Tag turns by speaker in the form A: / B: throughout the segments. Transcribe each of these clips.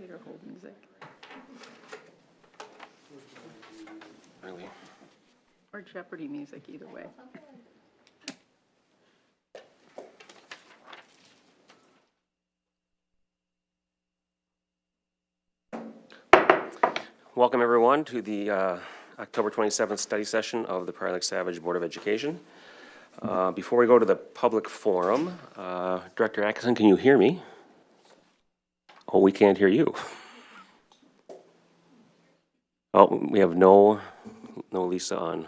A: Peter Holdings,
B: Really?
A: or Jeopardy music, either way.
B: Welcome, everyone, to the uh, October 27th study session of the Prior Lake Savage Board of Education. Uh, Before we go to the public forum, uh, Director Atkinson, can you hear me? Oh, we can't hear you. Oh, we have no, no Lisa on.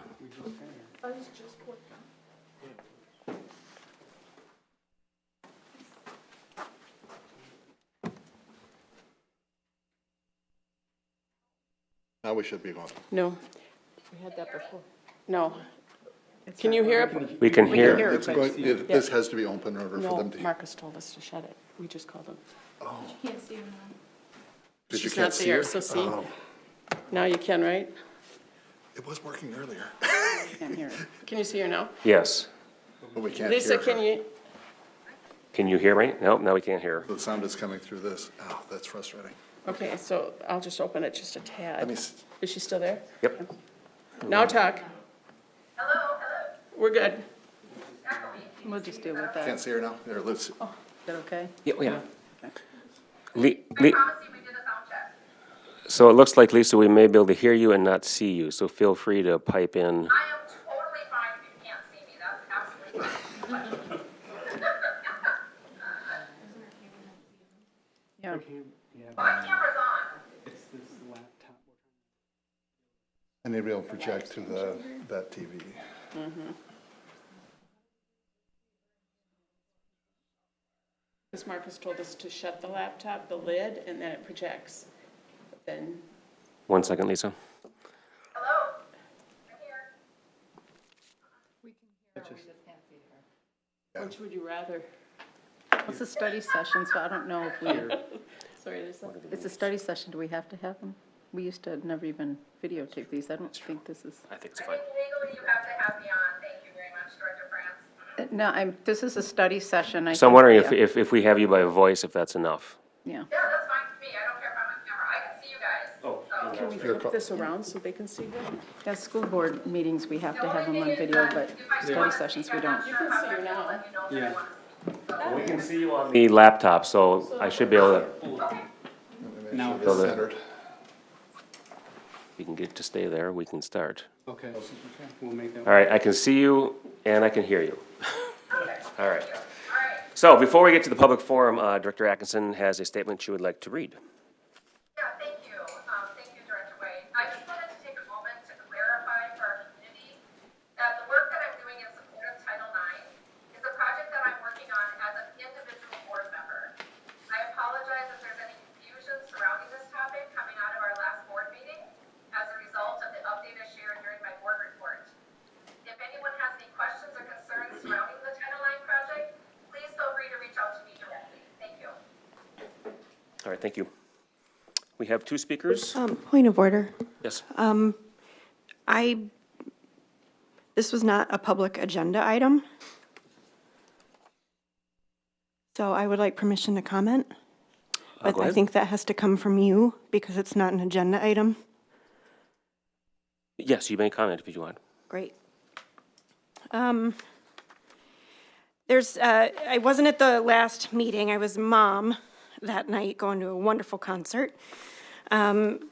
C: Now we should be going.
D: No, we had that before. No. Can you hear it?
B: We can hear.
D: hear.
C: It's going, it- this has to be open in order for
D: No,
C: them to hear.
D: Marcus told us to shut it. We just called him.
E: Can't see anyone.
C: Because you
D: She's not
C: can't see
D: there,
C: her. Oh.
D: so see? Now you can, right?
C: It was working earlier,
A: Can't hear it.
D: Can you see her now?
B: Yes.
C: but we can't hear
D: Lisa,
C: her.
D: can you,
B: Can you hear me? Nope, now we can't hear.
C: The sound is coming through this. Oh, that's frustrating.
D: okay, so I'll just open it just a
C: Let me,
D: tad.
C: s-
D: Is she still there?
B: Yep.
D: Now talk. Hello, hello. We're good.
A: We'll just deal with that.
C: can't see her now? There, let's,
D: Oh.
A: Is that okay?
B: Yeah, oh, yeah. Le- Le- So it looks like, Lisa, we may be able to hear you and not see you, so feel free to pipe in.
F: I am totally fine if you can't see me, that's absolutely fine.
A: Yeah.
F: My camera's on.
C: I need to be able to project to the, that TV.
D: Because Marcus told us to shut the laptop, the lid, and then it projects. Then,
B: One second, Lisa.
D: which would you rather?
A: It's a study session, so I don't know if we,
D: Sorry, Lisa.
A: it's a study session, do we have to have them? We used to never even videotape these, I don't think this is,
B: I think it's
F: I think legally you have to have me on, thank you very much, Director France.
A: Uh, no, I'm, this is a study session. I
B: So I'm
A: think-
B: wondering if,
A: yeah,
B: if, if we have you by voice, if that's enough.
A: Yeah,
F: Yeah, that's fine with me, I don't care if I'm on camera, I can see you guys. Oh.
D: Can we flip this around so they can see her?
A: yeah, school board meetings, we have to have them on video, but study sessions, we don't.
D: You can see her now.
B: We can see you on. The laptop, so I should be able to,
C: Now. It's centered.
B: if you can get to stay there, we can start.
G: Okay, we'll make that.
B: All right, I can see you and I can hear you. All right. So before we get to the public forum, uh, Director Atkinson has a statement she would like to read.
F: Yeah, thank you. Um, thank you, Director Wade. I just wanted to take a moment to clarify for our community that the work that I'm doing in support of Title IX is a project that I'm working on as an individual board member. I apologize if there's any confusion surrounding this topic coming out of our last board meeting as a result of the update I shared during my board report. If anyone has any questions or concerns surrounding the Title IX project, please feel free to reach out to me directly. Thank you.
B: All right, thank you. We have two speakers.
H: Um, Point of order.
B: Yes.
H: Um, I, this was not a public agenda item. So I would like permission to comment. But
B: Uh, go
H: I
B: ahead.
H: think that has to come from you because it's not an agenda item.
B: Yes, you may comment if you want.
H: Great. Um, There's, uh, I wasn't at the last meeting, I was mom that night going to a wonderful concert. Um,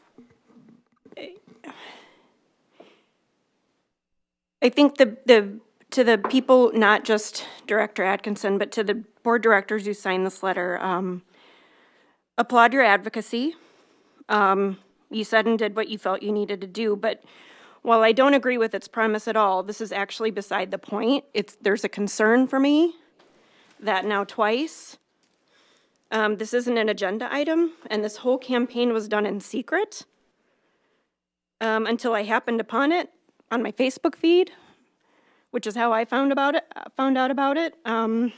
H: I think the, the, to the people, not just Director Atkinson, but to the board directors who signed this letter, um, applaud your advocacy um, you said and did what you felt you needed to do, but while I don't agree with its premise at all, this is actually beside the point. It's, there's a concern for me that now twice, um, this isn't an agenda item, and this whole campaign was done in secret um, until I happened upon it on my Facebook feed, which is how I found about it. Found out about it. Um,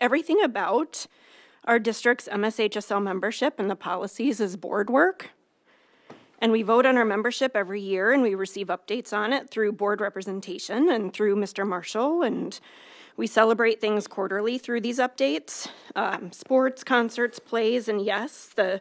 H: everything about our district's MSHSL membership and the policies is board work. And we vote on our membership every year and we receive updates on it through board representation and through Mr. Marshall. And we celebrate things quarterly through these updates, um, sports, concerts, plays, and yes, the